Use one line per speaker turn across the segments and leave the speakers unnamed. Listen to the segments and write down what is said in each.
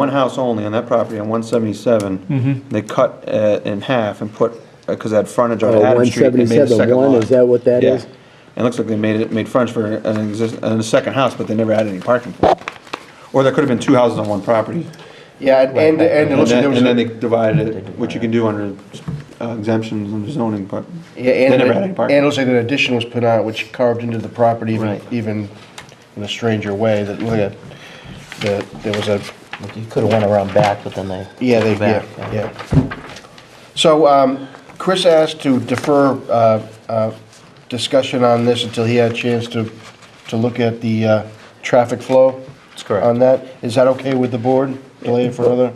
one house only on that property on one
Mm-hmm.
They cut uh, in half and put, because they had frontage on
Oh,
Adam Street, they made a
177,
second
one,
lot.
is that what that
Yeah.
is?
And it looks like they made it, made frontage for an exist, a second house, but they never had any parking for it. Or there could have been two houses on one property.
Yeah, and, and, and it
And
looks
then,
like there was
and then
a-
they divided it, which you can do under uh, exemptions under zoning, but
Yeah,
they
and,
never had any
and it
parking.
looks like an addition was put on, it, which carved into the property even,
Right.
even in a stranger way, that, look at, that, there was a,
Like, You could've went around back, but then they.
yeah, they,
back,
yeah, yeah. So, um, Chris asked to defer, uh, uh, discussion on this until he had a chance to, to look at the, uh, traffic flow.
That's correct.
On that, is that okay with the board, delay it for another?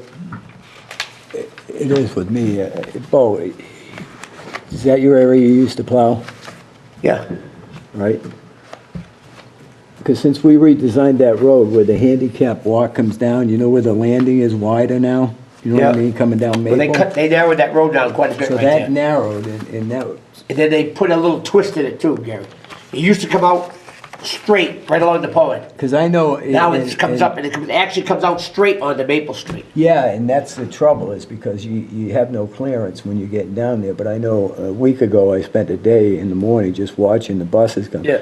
It is with me. uh, Bo, is that your area you used to plow,
Yeah.
right? Because since we redesigned that road where the handicap walk comes down, you know where the landing is wider now? You know what I
Yeah.
mean, coming down
Well, they cut,
Maple?
they narrowed that road down quite a bit
So
right
that
there.
narrowed and and that,
And then they put a little twist in it too, Gary. It used to come out straight right along the pond.
because I know. it-
Now it
and-
just comes
and-
up and it comes, actually comes out straight onto Maple Street.
Yeah, and that's the trouble is because you, you have no clearance when you get down there. But I know a week ago, I spent a day in the morning just watching the buses come.
Yeah.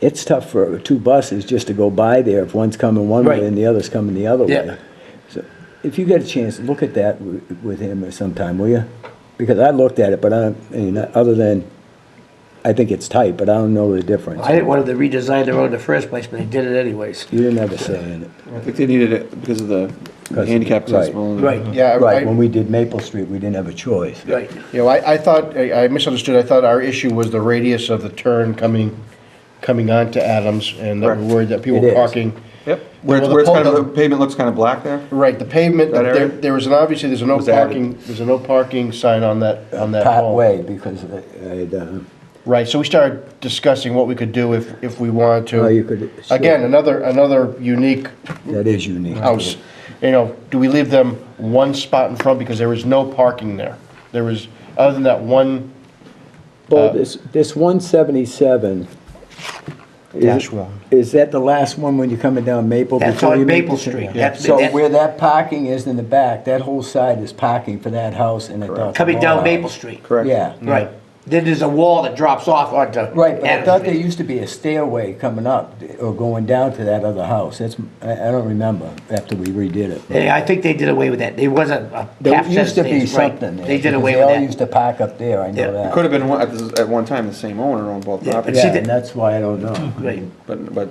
It's tough for two buses just to go by there if one's coming one
Right.
way and the other's coming the other
Yeah.
way. So if you get a chance, look at that wi- with him or sometime, will you? Because I looked at it, but I, I mean, other than, I think it's tight, but I don't know the difference.
I didn't want them to redesign the road in the first place, but they did it anyways.
You didn't have a say in it.
I think they needed it because of the
Because-
handicap
right.
accessible. and-
Right,
Yeah, I-
Right,
I-
when we did Maple Street, we didn't have a choice.
right.
You know, I, I thought, I I misunderstood, I thought our issue was the radius of the turn coming, coming onto Adams, and that we're
Correct.
worried that people
It
were
is.
parking.
Yep, where
Well,
it's,
the
where it's kind
pole-
of, the pavement looks kind of black there.
Right, the pavement,
That
there,
area?
there was an, obviously, there's a no
Was added.
parking, there's a no parking sign on that, on that pole.
Pathway, because I, I'd, uh,
Right, so we started discussing what we could do if, if we wanted to.
Well, you could- sure.
Again, another, another unique
That is unique.
house. You know, do we leave them one spot in front, because there was no parking there? There was, other than that one
Well, this, this one seventy-seven.
Dash one.
Is that the last one when you're coming down Maple?
That's
before
on
you make
Maple
the turn?
Street. That's-
So
that's-
where that parking is in the back, that whole side is parking for that house and it does.
Coming down Maple Street.
Correct.
Yeah,
Right. Then there's a wall that drops off onto
right, but I
Adams
thought
Street.
there used to be a stairway coming up or going down to that other house. That's, I, I don't remember after we redid it.
Yeah, I think they did away with that. There wasn't a
There
half
used to be
sentence, right.
something there.
They did
because
away
They all
with
used
that.
to park up there, I
Yeah.
know that.
Could have been one, at, this- at one time the same owner on both
Yeah, but
properties,
see
Yeah,
that-
and that's why I don't know.
Right.
but, but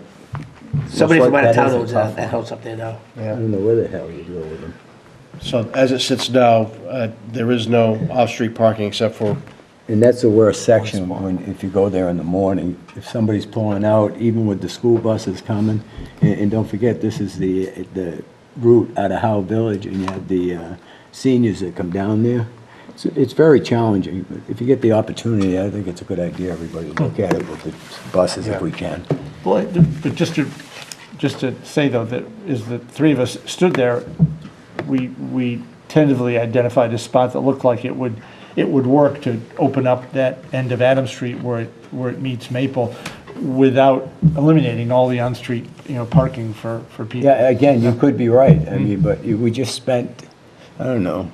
Somebody
Looks
from
like
out
that
of town
is a
owns that
tough
that house up there now.
I don't know where the hell you go with them.
So as it sits now, uh, there is no off-street parking except for,
And that's the worst section, when, if you go there in the morning, if somebody's pulling out, even with the school buses coming, and, and don't forget, this is the, the route out of Howe Village, and you have the, uh, seniors that come down there. It's, it's very challenging, but if you get the opportunity, I think it's a good idea, everybody, to look at it with the buses if we can.
Well, it- but just to, just to say though, that is that three of us stood there, we, we tentatively identified a spot that looked like it would, it would work to open up that end of Adams Street where it, where it meets Maple without eliminating all the on-street, you know, parking for, for people.
Yeah, again, you could be right, I mean, but you- we just spent, I don't know,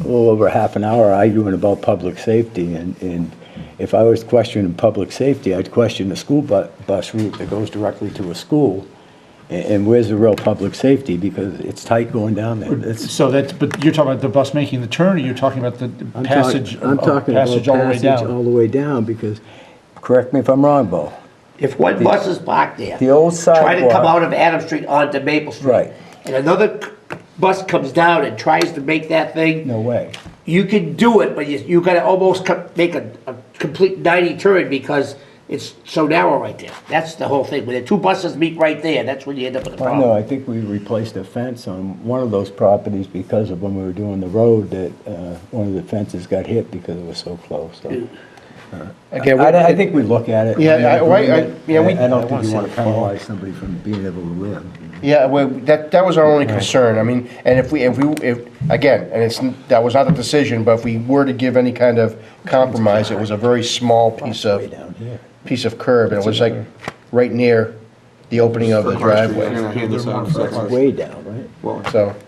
a little over half an hour arguing about public safety, and, and if I was questioning public safety, I'd question the school bu- bus route that goes directly to a school, and, and where's the real public safety, because it's tight going down there, it's.
So that's, but you're talking about the bus making the turn, or you're talking about the the
I'm talk-
passage, uh,
I'm talking about
passage all the way
passage All
down?
the way down, because, correct me if I'm wrong, Bo,
If one bus is parked there.
the old
Try to come
sidewalk-
out of Adams Street onto Maple Street.
Right.
And another c- bus comes down and tries to make that thing.
no way.
You can do it, but you, you gotta almost co- make a, a complete ninety turn because it's so narrow right there. That's the whole thing. When the two buses meet right there, that's when you end up with a
Well, no,
problem.
I think we replaced a fence on one of those properties because of when we were doing the road that, uh, one of the fences got hit because it was so close, so.
again,
I, I
we-
think we look at it.
Yeah, I- I- I- yeah, we-
I don't
I wanna
think you
see
wanna
the pole.
penalize somebody from being able to live.
yeah, well, that, that was our only concern. I mean, and if we, if we, if, again, and it's, that was not the decision, but if we were to give any kind of compromise, it was a very small piece
Way
of,
down here.
piece of curb, and it was like right near the opening of the
First, we're
driveway.
gonna hand this out in a second.
Way down, right?
Well,
So,